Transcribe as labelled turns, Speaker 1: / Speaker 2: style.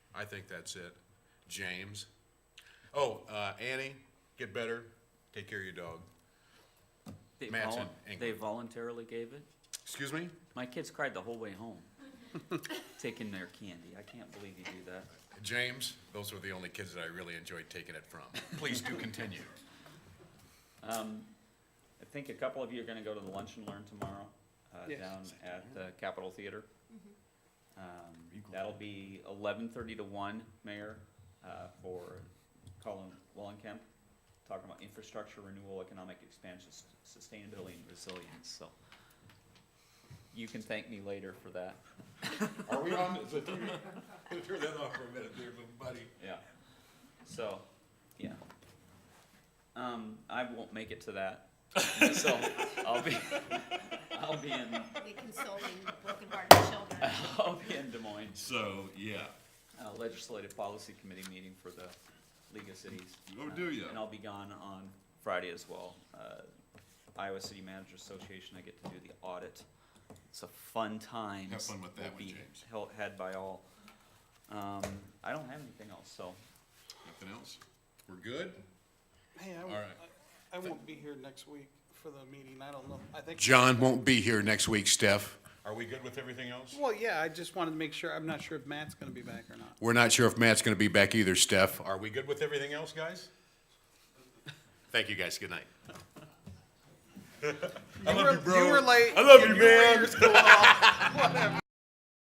Speaker 1: I think that's it. James. Oh, uh, Annie, get better. Take care of your dog.
Speaker 2: They
Speaker 1: Matt's
Speaker 2: volun-
Speaker 1: in England.
Speaker 2: They voluntarily gave it?
Speaker 1: Excuse me?
Speaker 2: My kids cried the whole way home, taking their candy. I can't believe you do that.
Speaker 1: James, those were the only kids that I really enjoyed taking it from. Please do continue.
Speaker 2: I think a couple of you are gonna go to the lunch and learn tomorrow, uh,
Speaker 3: Yes.
Speaker 2: down at the Capitol Theater. Um, that'll be eleven thirty to one, Mayor, uh, for Colin Wallenkemp, talking about infrastructure renewal, economic expansion, s- sustainability and resilience, so. You can thank me later for that,
Speaker 1: Are we on? Is it- Turn that off for a minute there, little buddy.
Speaker 2: yeah. So, yeah. Um, I won't make it to that, so I'll be, I'll be in,
Speaker 4: be consoling broken-hearted children.
Speaker 2: I'll be in Des Moines.
Speaker 5: So, yeah,
Speaker 2: uh, legislative policy committee meeting for the League of Cities.
Speaker 5: Oh,
Speaker 2: Uh,
Speaker 5: do ya?
Speaker 2: And I'll be gone on Friday as well. Uh, Iowa City Managers Association, I get to do the audit. It's a fun time.
Speaker 1: Have fun with that one, James.
Speaker 2: Held, had by all. Um, I don't have anything else, so
Speaker 1: Nothing else? We're good?
Speaker 3: Hey, I
Speaker 1: All
Speaker 3: won't,
Speaker 1: right.
Speaker 3: I I won't be here next week for the meeting, I don't know, I think.
Speaker 1: John won't be here next week, Steph. Are we good with everything else?
Speaker 3: Well, yeah, I just wanted to make sure, I'm not sure if Matt's gonna be back or not.
Speaker 1: We're not sure if Matt's gonna be back either, Steph. Are we good with everything else, guys? Thank you, guys. Good night.
Speaker 3: I love you, bro. You were late.
Speaker 5: I love you,
Speaker 3: your
Speaker 5: man.
Speaker 3: ears go off, Whatever.